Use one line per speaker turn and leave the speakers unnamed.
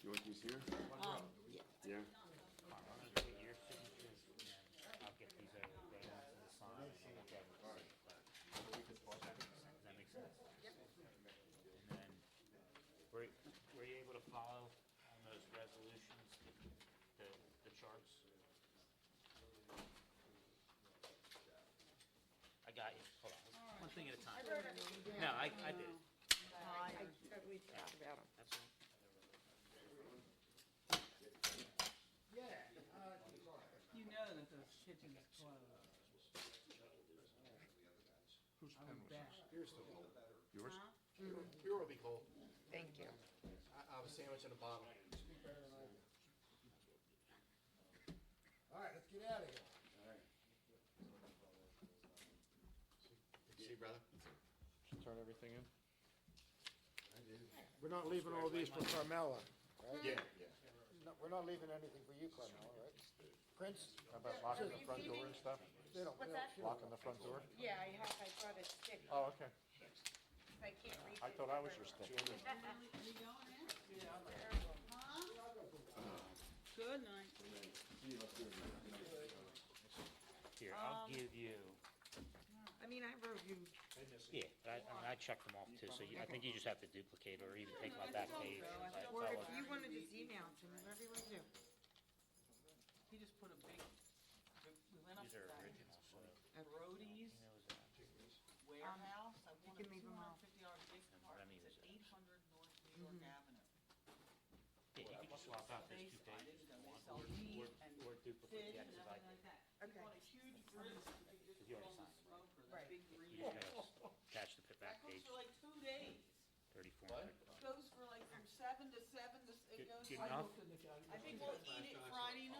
Dorothy's here?
Um, yeah,
Yeah.
your signatures, and I'll get these over there to the sign, and I'll look at it. Does that make sense? And then, were, were you able to follow on those resolutions, the, the charts? uh, I got you, hold on, one thing at a time. No, I, I did.
we talked about them.
That's all.
You know that the kitchen is closed. Whose pen was this?
Yours?
Here will be cold.
Thank you.
I, I have a sandwich and a bottle.
All right, let's get out of here.
See, brother?
Turn everything in?
We're not leaving all these for Carmella, right?
Yeah, yeah.
No, We're not leaving anything for you, Carmella, right? Prince,
How about locking the front door and stuff?
they don't,
What's
they
that?
don't.
Locking the front door?
Yeah, I have, I brought a stick,
Oh, okay.
I can't reach
I
it.
thought I was your stick.
Good night.
Here, I'll give you,
I mean, I reviewed.
yeah, I, I mean, I checked them off too, so you, I think you just have to duplicate or even take my back page. and that-
Or
that
if
one.
you wanna just email it to me, whatever you wanna do.
He just put a big, we went up
These are
to that
original, so.
Brody's
you know, is that-
warehouse. I
you
wanted
can leave
two
'em
hundred
out.
and fifty dollar big
And what I
cart.
mean is
It's at
that-
eight hundred North New York
Mm-hmm.
Avenue.
Yeah, you could just swap out those
Space,
two
I
pages
didn't
if you
know they
want,
sell
or,
meat
or-
and
or duplicate
fish
the
and
extra
everything like that. He
Okay.
bought a huge grill, so you could just
You already
put on
signed.
the smoker, the
Right.
big
You
grill.
just gotta attach the
That
back
goes
page,
for like two days.
thirty-four
What?
hundred.
Goes for like from seven to seven, to s- it
Good-
goes
good
like.
enough?
I think we'll eat it Friday night.
Oh.